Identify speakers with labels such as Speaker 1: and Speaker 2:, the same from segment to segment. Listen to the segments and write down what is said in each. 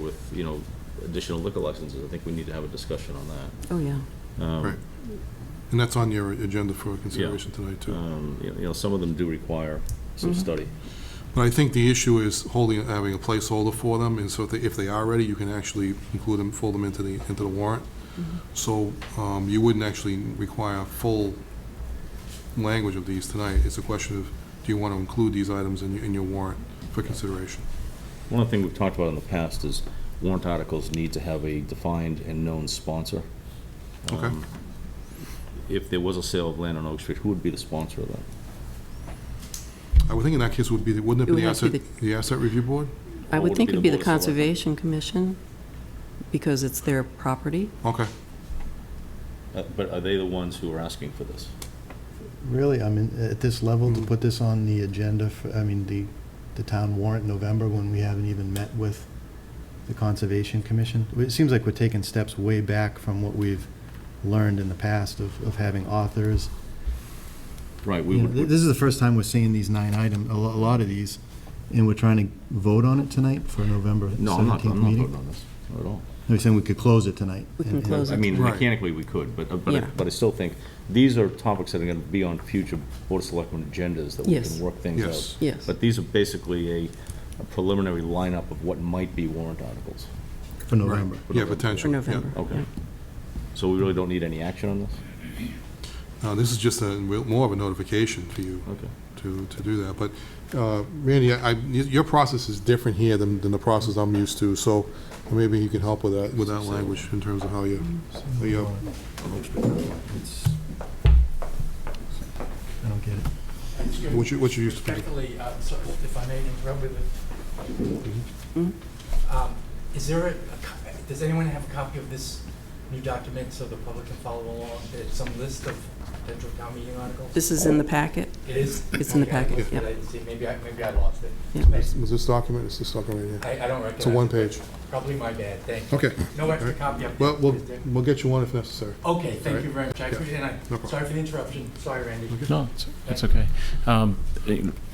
Speaker 1: with, you know, additional liquor licenses, I think we need to have a discussion on that.
Speaker 2: Oh, yeah.
Speaker 1: Um,
Speaker 3: Right. And that's on your agenda for consideration tonight, too.
Speaker 1: um, You you know, some of them do require some
Speaker 2: Mhm.
Speaker 1: study.
Speaker 3: But I think the issue is holding, having a placeholder for them, and so if they, if they are ready, you can actually include them, fold them into the, into the warrant.
Speaker 2: Mm-hmm.
Speaker 3: So, um, you wouldn't actually require full language of these tonight. It's a question of, do you want to include these items in, your- in your warrant for consideration?
Speaker 1: One of the things we've talked about in the past is warrant articles need to have a defined and known sponsor.
Speaker 3: Okay.
Speaker 1: Um, If there was a sale of land on Oak Street, who would be the sponsor of that?
Speaker 3: I would think in that case would be, the- wouldn't it
Speaker 2: It
Speaker 3: be the
Speaker 2: would have to be
Speaker 3: asset, the asset review board?
Speaker 2: I
Speaker 1: Or
Speaker 2: would think it'd be the
Speaker 1: Board of Selectmen?
Speaker 2: Conservation Commission, because it's their property.
Speaker 3: Okay,
Speaker 1: Uh, But are they the ones who are asking for this?
Speaker 4: Really, I mean, at this level,
Speaker 1: Hmm.
Speaker 4: to put this on the agenda, for I mean, the, the town warrant in November, when we haven't even met with the Conservation Commission, it seems like we're taking steps way back from what we've learned in the past of, of having authors.
Speaker 1: Right, we
Speaker 4: You know, th-
Speaker 1: would,
Speaker 4: This is the first time we're seeing these nine item, a lo- a lot of these, and we're trying to vote on it tonight for November
Speaker 1: no, I'm not,
Speaker 4: seventeenth
Speaker 1: I'm not voting
Speaker 4: meeting.
Speaker 1: on this at all.
Speaker 4: They're saying we could close it tonight.
Speaker 2: We can
Speaker 4: and- and-
Speaker 2: close
Speaker 1: I
Speaker 2: it.
Speaker 1: mean,
Speaker 3: Right.
Speaker 1: mechanically, we could, but, uh, but, I-
Speaker 2: Yeah.
Speaker 1: but I still think, these are topics that are gonna be on future Board of Selectmen agendas that we
Speaker 2: Yes.
Speaker 1: can work things out.
Speaker 3: yes.
Speaker 2: Yes.
Speaker 1: But these are basically a a preliminary lineup of what might be warrant articles.
Speaker 4: For November.
Speaker 3: Right. Yeah,
Speaker 2: For
Speaker 3: potential, yeah.
Speaker 2: November.
Speaker 1: Okay. So we really don't need any action on this?
Speaker 3: Uh, this is just a, more of a notification for you.
Speaker 1: Okay.
Speaker 3: to, to do that. But uh, Randy, I, I- your process is different here than, than the process I'm used to, so maybe you can help with that, with that language in terms of how you, how you
Speaker 4: It's- I don't get it.
Speaker 2: Mm-hmm.
Speaker 3: What you- what you used to do.
Speaker 5: Respectfully, uh, so if I may interrupt with it.
Speaker 2: Mm-hmm.
Speaker 5: Um, Is there, a- a co- does anyone have a copy of this new document so the public can follow along? It's some list of potential town meeting articles?
Speaker 2: This is in the packet.
Speaker 5: It is?
Speaker 2: It's in the
Speaker 5: Okay, I
Speaker 2: packet,
Speaker 5: looked at
Speaker 2: yeah.
Speaker 5: it, I didn't see, maybe I, maybe I lost it.
Speaker 2: Yeah.
Speaker 5: Thanks.
Speaker 3: Was this document, is this document right here?
Speaker 5: I, I don't recognize.
Speaker 3: It's a one
Speaker 5: it,
Speaker 3: page. Oh,
Speaker 5: but Probably my bad, thank you.
Speaker 3: Okay,
Speaker 5: No extra
Speaker 3: Alright.
Speaker 5: copy up there.
Speaker 3: well, we'll,
Speaker 5: is there?
Speaker 3: we'll get you one if necessary.
Speaker 5: Okay, thank you
Speaker 3: Alright.
Speaker 5: very much. I
Speaker 3: Yeah.
Speaker 5: appreciate it, and
Speaker 3: No
Speaker 5: I,
Speaker 3: problem.
Speaker 5: sorry for the interruption. Sorry, Randy.
Speaker 6: No, it's- it's okay. Um,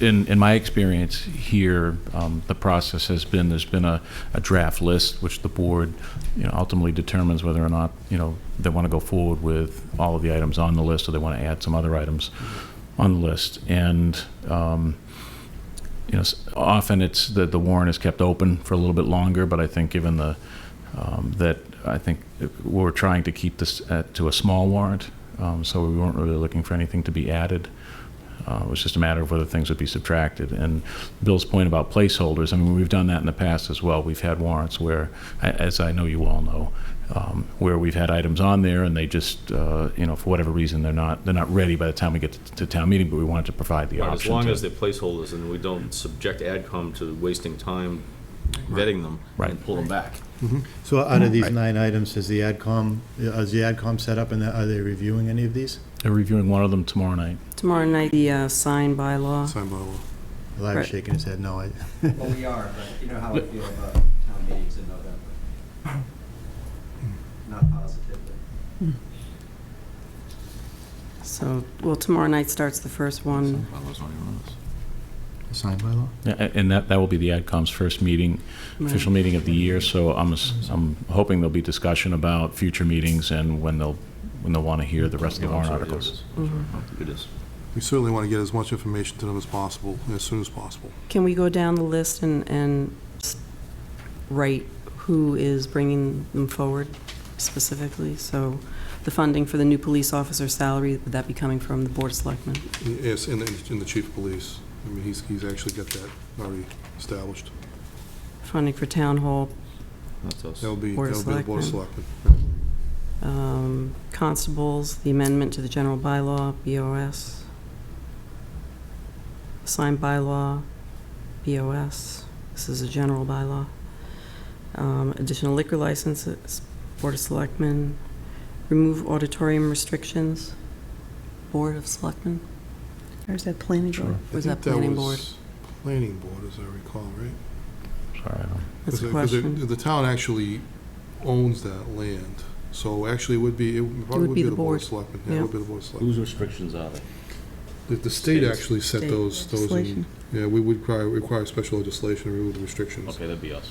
Speaker 6: In, in my experience here, um, the process has been, there's been a, a draft list, which the board, you know, ultimately determines whether or not, you know, they want to go forward with all of the items on the list, or they want to add some other items on the list. And, um, you know, s- often it's, the, the warrant is kept open for a little bit longer, but I think given the, um, that I think we're trying to keep this at, to a small warrant, um, so we weren't really looking for anything to be added. Uh, it was just a matter of whether things would be subtracted. And Bill's point about placeholders, I mean, we've done that in the past as well. We've had warrants where, a- as I know you all know, um, where we've had items on there and they just, uh, you know, for whatever reason, they're not they're not ready by the time we get to, to town meeting. But we wanted to provide the
Speaker 1: Right, As
Speaker 6: option.
Speaker 1: long
Speaker 6: to-
Speaker 1: as they're placeholders and we don't subject AdCom to wasting time vetting them and
Speaker 6: Right.
Speaker 1: pull them back.
Speaker 4: So out of these
Speaker 6: Right.
Speaker 4: nine items, has the AdCom, uh, is the AdCom set up and are they reviewing any of these?
Speaker 6: they're reviewing one of them tomorrow night.
Speaker 2: Tomorrow night, the uh, sign by law.
Speaker 3: Sign by law.
Speaker 4: Larry's
Speaker 2: Right.
Speaker 4: shaking his head, no. I-
Speaker 7: Well, we are, but you know how I feel about town meetings in November. Not positively.
Speaker 2: So, well, tomorrow night starts the first one.
Speaker 4: Signed by law?
Speaker 6: Yeah, a- And that, that will be the AdCom's first meeting, official meeting of the year, so I'm, ass- I'm hoping there'll be discussion about future meetings and when they'll, when they'll want to hear the rest of the warrant articles. Mm-hmm.
Speaker 1: It is.
Speaker 3: We certainly want to get as much information to them as possible, as soon as possible.
Speaker 2: Can we go down the list and, and s- write who is bringing them forward specifically? So the funding for the new police officer salary, would that be coming from the Board of Selectmen?
Speaker 3: Yes, and, the- and the chief of police, I mean, he's, he's actually got that already established.
Speaker 2: Funding for town hall,
Speaker 1: That's us.
Speaker 3: That'll be,
Speaker 2: Board of
Speaker 3: that'll be the board of selectmen.
Speaker 2: um, constables, the amendment to the general bylaw, BOS, signed bylaw, BOS, this is a general bylaw, Um, additional liquor licenses, Board of Selectmen, remove auditorium restrictions, Board of Selectmen? Or is that planning board?
Speaker 3: I
Speaker 2: Was
Speaker 3: think
Speaker 2: that planning board?
Speaker 3: was Planning board, as I recall, right?
Speaker 6: Sorry, I don't-
Speaker 2: That's a
Speaker 3: Because it- 'cause it-
Speaker 2: question.
Speaker 3: The town actually owns that land, so actually it would be, it would- probably would be the Board of Selectmen. Yeah, It would be the Board of Selectmen.
Speaker 1: Whose restrictions are they?
Speaker 3: The, the state
Speaker 1: States.
Speaker 3: actually set
Speaker 2: State
Speaker 3: those, those, in- yeah, we would require, require special legislation to remove the restrictions.
Speaker 1: Okay, that'd be us.